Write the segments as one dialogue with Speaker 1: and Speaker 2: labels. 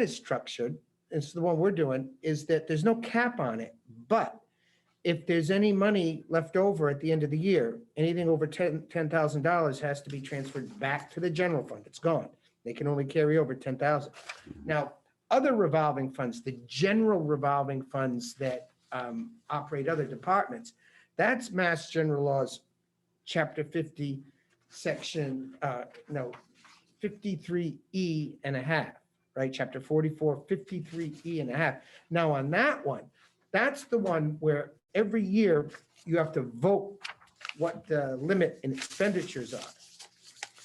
Speaker 1: is structured, it's the one we're doing, is that there's no cap on it. But if there's any money left over at the end of the year, anything over ten, ten thousand dollars has to be transferred back to the general fund. It's gone. They can only carry over ten thousand. Now, other revolving funds, the general revolving funds that um, operate other departments, that's Mass General Laws, Chapter fifty, Section, uh, no, fifty-three E and a half right? Chapter 44, 53E and a half. Now, on that one, that's the one where every year you have to vote what the limit in expenditures are.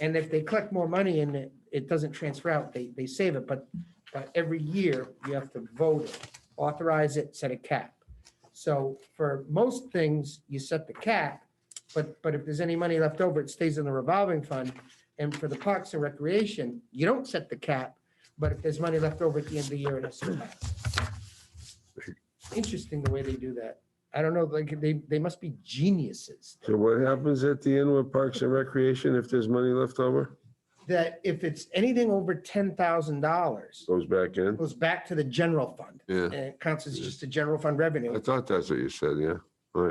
Speaker 1: And if they collect more money and it, it doesn't transfer out, they, they save it, but, but every year you have to vote it, authorize it, set a cap. So for most things, you set the cap, but, but if there's any money left over, it stays in the revolving fund. And for the Parks and Recreation, you don't set the cap, but if there's money left over at the end of the year, it has to go back. Interesting the way they do that. I don't know, like, they, they must be geniuses.
Speaker 2: So what happens at the end with Parks and Recreation if there's money left over?
Speaker 1: That if it's anything over ten thousand dollars,
Speaker 2: Goes back in?
Speaker 1: goes back to the general fund,
Speaker 2: Yeah,
Speaker 1: and it counts as just a general fund revenue.
Speaker 2: I thought that's what you said, yeah.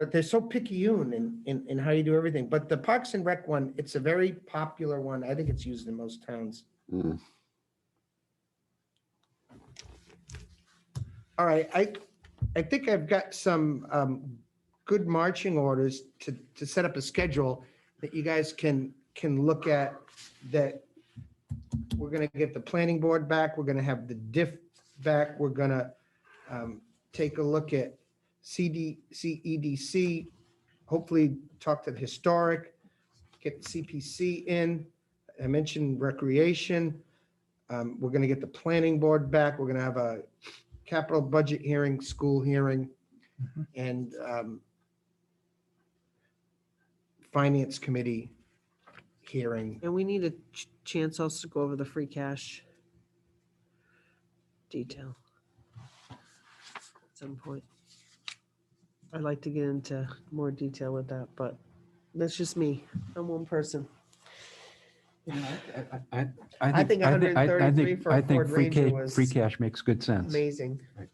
Speaker 1: But they're so picayune in, in, in how you do everything. But the Parks and Rec one, it's a very popular one. I think it's used in most towns.
Speaker 2: Mm.
Speaker 1: All right, I, I think I've got some um, good marching orders to, to set up a schedule that you guys can, can look at that we're going to get the planning board back, we're going to have the diff back, we're going to um, take a look at CD, CEDC, E hopefully talk to the historic, get CPC in. I mentioned recreation. Um, We're going to get the planning board back. We're going to have a capital budget hearing, school hearing, and um, finance committee hearing.
Speaker 3: And we need a ch- chance also to go over the free cash detail at some point. I'd like to get into more detail with that, but that's just me. I'm one person.
Speaker 4: I
Speaker 3: I think
Speaker 4: I I- I
Speaker 3: 133
Speaker 4: think-
Speaker 3: for a
Speaker 4: I think
Speaker 3: Ford
Speaker 4: free
Speaker 3: Ranger
Speaker 4: ca-
Speaker 3: was
Speaker 4: Free cash makes good sense.
Speaker 3: Amazing.
Speaker 4: Right.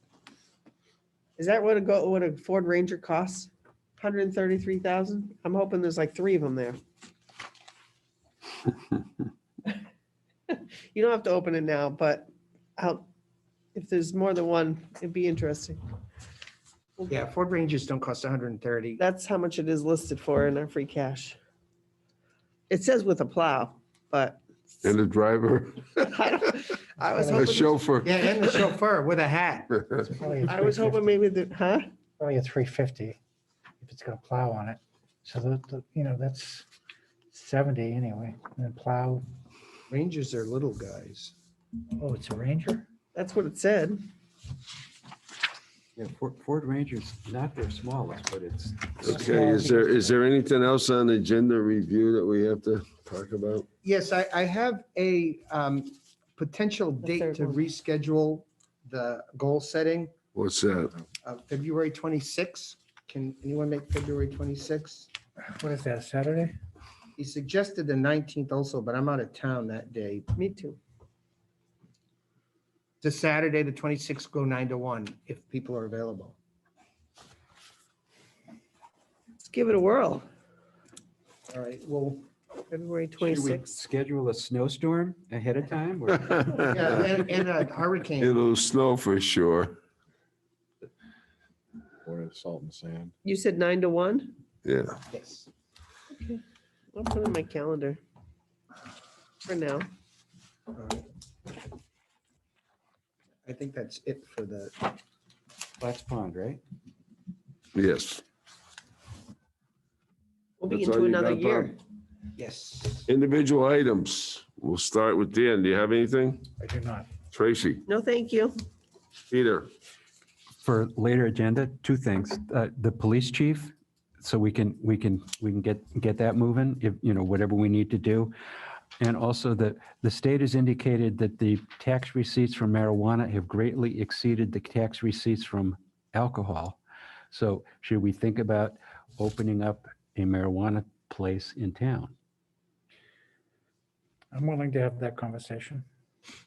Speaker 3: Is that what a go, what a Ford Ranger costs? Hundred and thirty-three thousand? I'm hoping there's like three of them there. You don't have to open it now, but I'll, if there's more than one, it'd be interesting.
Speaker 1: Yeah, Ford Rangers don't cost 130.
Speaker 3: That's how much it is listed for in our free cash. It says with a plow, but
Speaker 2: And the driver,
Speaker 3: I don't- I was
Speaker 2: the
Speaker 3: hoping,
Speaker 2: chauffeur.
Speaker 1: Yeah, and the chauffeur with a hat.
Speaker 5: Probably
Speaker 3: I was hoping maybe the, huh?
Speaker 5: Probably a three fifty, if it's got a plow on it. So the, the- you know, that's seventy anyway, and then plow,
Speaker 1: Rangers are little guys.
Speaker 5: oh, it's a Ranger?
Speaker 3: That's what it said.
Speaker 4: Yeah, Ford- Ford Ranger's not their smallest, but it's.
Speaker 2: Okay, is there, is there anything else on the agenda review that we have to talk about?
Speaker 1: Yes, I, I have a um, potential
Speaker 3: The
Speaker 1: date
Speaker 3: third
Speaker 1: to
Speaker 3: one.
Speaker 1: reschedule the goal setting
Speaker 2: What's that?
Speaker 1: of February 26. Can anyone make February 26?
Speaker 5: What is that, Saturday?
Speaker 1: He suggested the 19th also, but I'm out of town that day.
Speaker 3: Me too.
Speaker 1: The Saturday, the 26th, go 9 to 1 if people are available.
Speaker 3: Let's give it a whirl.
Speaker 1: All right, well,
Speaker 3: February
Speaker 4: Should we
Speaker 3: 26th.
Speaker 4: schedule a snowstorm ahead of time? or-
Speaker 1: yeah, and and a hurricane.
Speaker 2: It'll snow for sure.
Speaker 6: Or salt and sand.
Speaker 3: You said nine to one?
Speaker 2: Yeah.
Speaker 1: Yes.
Speaker 3: I'll put it in my calendar for now.
Speaker 1: All right. I think that's it for the,
Speaker 4: Platts Pond, right?
Speaker 2: Yes.
Speaker 3: We'll be
Speaker 2: That's all
Speaker 3: into
Speaker 2: you
Speaker 3: another
Speaker 2: got, Bob?
Speaker 3: year.
Speaker 1: yes.
Speaker 2: Individual items. We'll start with Dan. Do you have anything?
Speaker 5: I do not.
Speaker 2: Tracy,
Speaker 3: No, thank you.
Speaker 2: Peter,
Speaker 4: For later agenda, two things. Uh, The police chief, so we can, we can, we can get, get that moving, if, you know, whatever we need to do. And also the, the state has indicated that the tax receipts from marijuana have greatly exceeded the tax receipts from alcohol. So should we think about opening up a marijuana place in town?
Speaker 5: I'm willing to have that conversation.